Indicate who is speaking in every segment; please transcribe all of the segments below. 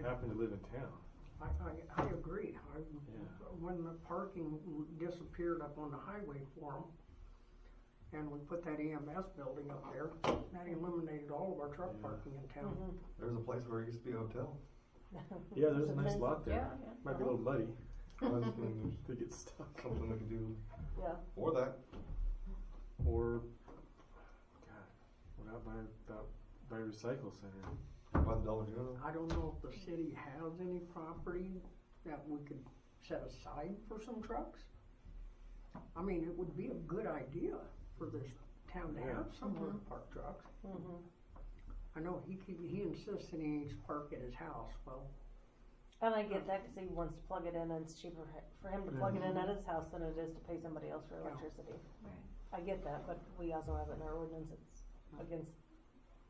Speaker 1: happen to live in town.
Speaker 2: I, I, I agree. I,
Speaker 1: Yeah.
Speaker 2: when the parking disappeared up on the highway for 'em, and we put that EMS building up there, that eliminated all of our truck
Speaker 1: Yeah.
Speaker 2: parking in town.
Speaker 3: There's a place where it used to be a hotel.
Speaker 1: Yeah, there's a nice
Speaker 4: Sometimes-
Speaker 1: lot there.
Speaker 4: yeah, yeah.
Speaker 1: Might be a little muddy.
Speaker 3: I was thinking
Speaker 1: Could get stuck.
Speaker 3: there's Something we could do,
Speaker 4: Yeah,
Speaker 3: or that.
Speaker 1: Or, God, what out by about by recycle center?
Speaker 3: By the Dollar General.
Speaker 2: I don't know if the city has any property that we could set aside for some trucks. I mean, it would be a good idea for this town to have somewhere to park trucks.
Speaker 4: mhm.
Speaker 2: I know he, keep- he insists that he needs to park at his house, well,
Speaker 4: And I get that because he wants to plug it in and it's cheaper h- for him to plug it in at his house than it is to pay somebody else for
Speaker 2: Yeah.
Speaker 4: electricity. I get that, but we also have it in our ordinance, it's against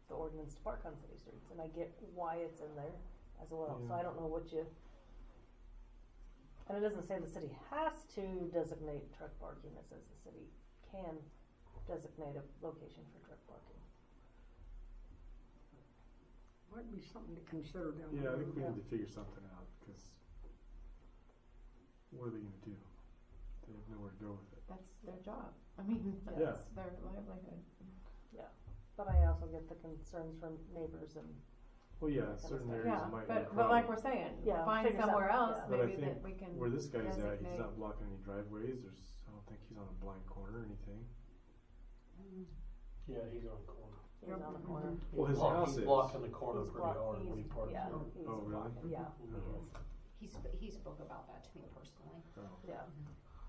Speaker 4: the ordinance to park on city streets, and I get why it's in there as well, so
Speaker 1: Yeah.
Speaker 4: I don't know what you. And it doesn't say the city has to designate truck parking, it says the city can designate a location for truck parking.
Speaker 2: might be something to consider down the road.
Speaker 1: Yeah, I think we need to figure something out because what are they gonna do? They have nowhere to go with it.
Speaker 5: That's their job. I mean, that's
Speaker 1: Yeah.
Speaker 5: their livelihood.
Speaker 4: But I also get the concerns from neighbors and,
Speaker 1: Well, yeah, certain
Speaker 4: Yeah,
Speaker 1: areas
Speaker 5: Yeah,
Speaker 1: might be a
Speaker 5: but, but
Speaker 1: problem.
Speaker 5: like we're saying,
Speaker 4: Yeah,
Speaker 5: find
Speaker 4: figure
Speaker 5: somewhere
Speaker 4: something,
Speaker 5: else
Speaker 4: yeah.
Speaker 1: But I
Speaker 5: maybe
Speaker 1: think
Speaker 5: that we can.
Speaker 1: Where this guy's at, he's
Speaker 5: designate-
Speaker 1: not blocking any driveways. There's, I don't think he's on a blind corner or anything.
Speaker 6: Yeah, he's on the corner.
Speaker 4: he's on the
Speaker 2: Mhm.
Speaker 4: corner.
Speaker 1: Well, his
Speaker 6: He's block-
Speaker 1: house is.
Speaker 6: He's blocking the corner
Speaker 4: He's
Speaker 6: pretty
Speaker 4: block-
Speaker 6: hard when he
Speaker 4: he's-
Speaker 6: parks.
Speaker 4: Yeah,
Speaker 6: there.
Speaker 4: he's
Speaker 1: Oh, really?
Speaker 4: blocking- yeah, he
Speaker 6: Mhm.
Speaker 1: Mm-hmm.
Speaker 4: is.
Speaker 7: He, sp- he spoke about that to me personally.
Speaker 1: Oh,
Speaker 4: Yeah,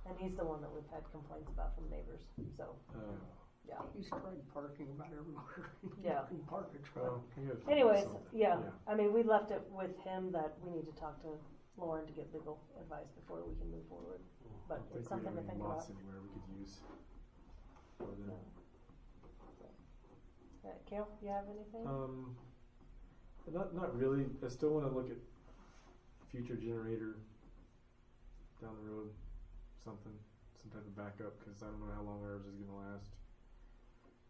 Speaker 4: and he's the one that we've had complaints about from neighbors, so,
Speaker 1: oh.
Speaker 4: yeah.
Speaker 2: He's tried parking about everywhere.
Speaker 4: Yeah.
Speaker 2: You can park a truck.
Speaker 1: Well, we gotta figure
Speaker 4: Anyways,
Speaker 1: something.
Speaker 4: yeah, I mean, we left it with him that we need to talk to Lauren to get legal advice before we can move forward,
Speaker 1: I
Speaker 4: but
Speaker 1: don't
Speaker 4: it's
Speaker 1: think we
Speaker 4: something
Speaker 1: have
Speaker 4: to
Speaker 1: any
Speaker 4: think
Speaker 1: lots
Speaker 4: about.
Speaker 1: anywhere we could use. for the-
Speaker 4: No. Uh, Kale, you have anything?
Speaker 1: Um, not not really. I still want to look at future generator down the road, something, some type of backup because I don't know how long ours is going to last.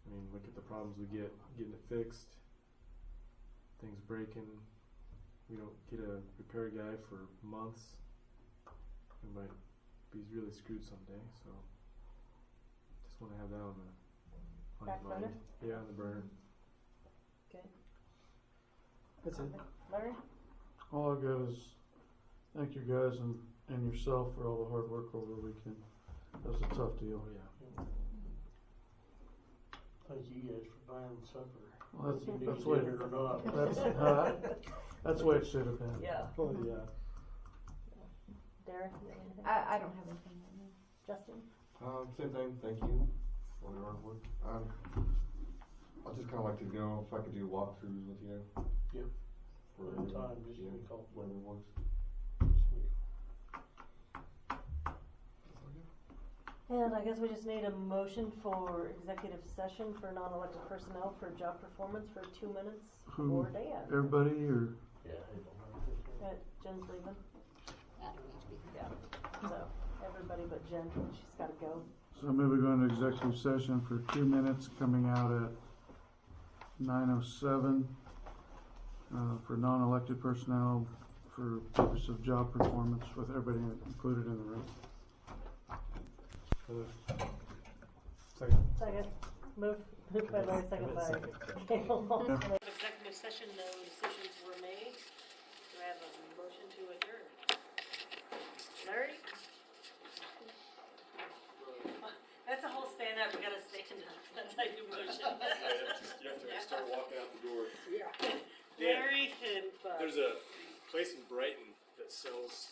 Speaker 1: I mean, look at the problems we get getting it fixed, things breaking. We don't get a repair guy for months. We might be really screwed someday. So, just want to have that on the on
Speaker 4: Back
Speaker 1: your mind.
Speaker 4: burner? Mm-hmm.
Speaker 1: Yeah, on the burner.
Speaker 4: Okay.
Speaker 1: That's it.
Speaker 4: Larry?
Speaker 8: All I got is thank you guys and, and yourself for all the hard work over the weekend. That was a tough deal.
Speaker 1: Oh yeah.
Speaker 6: Thank you guys for buying supper.
Speaker 8: Well,
Speaker 6: You
Speaker 8: that's,
Speaker 6: knew
Speaker 8: that's,
Speaker 6: you
Speaker 8: way,
Speaker 6: did it or not.
Speaker 8: that's, uh, that's the way it should have been.
Speaker 4: Yeah.
Speaker 1: Oh yeah.
Speaker 4: Derek, you have anything?
Speaker 5: I, I don't have anything right now.
Speaker 4: Justin?
Speaker 3: Um, same thing, thank you for your hard work. Um, I'd just kinda like to know if I could do walkthroughs with you.
Speaker 6: Yep.
Speaker 3: For
Speaker 6: One time, just
Speaker 3: yeah,
Speaker 6: give me a call.
Speaker 3: Whatever works.
Speaker 4: And I guess we just need a motion for executive session for non-elected personnel for job performance for two minutes
Speaker 8: Who-
Speaker 4: for Dan.
Speaker 8: Everybody, or
Speaker 6: Yeah, I don't know.
Speaker 4: Uh, Jen's leaving,
Speaker 7: That would need to be.
Speaker 4: yeah, so, everybody but Jen, she's gotta go.
Speaker 8: so maybe we go into executive session for two minutes, coming out at nine oh seven uh, for non-elected personnel for purpose of job performance with everybody included in the room.
Speaker 1: Hello. Second.
Speaker 4: Second, move, move by Larry, second by Kale. Executive session, no decisions were made. Do I have a motion to adjourn? Larry? That's a whole stand up, we gotta stand up, that's how you motion.
Speaker 9: You have to start walking out the door.
Speaker 4: Larry and Bud.
Speaker 9: There's a place in Brighton that sells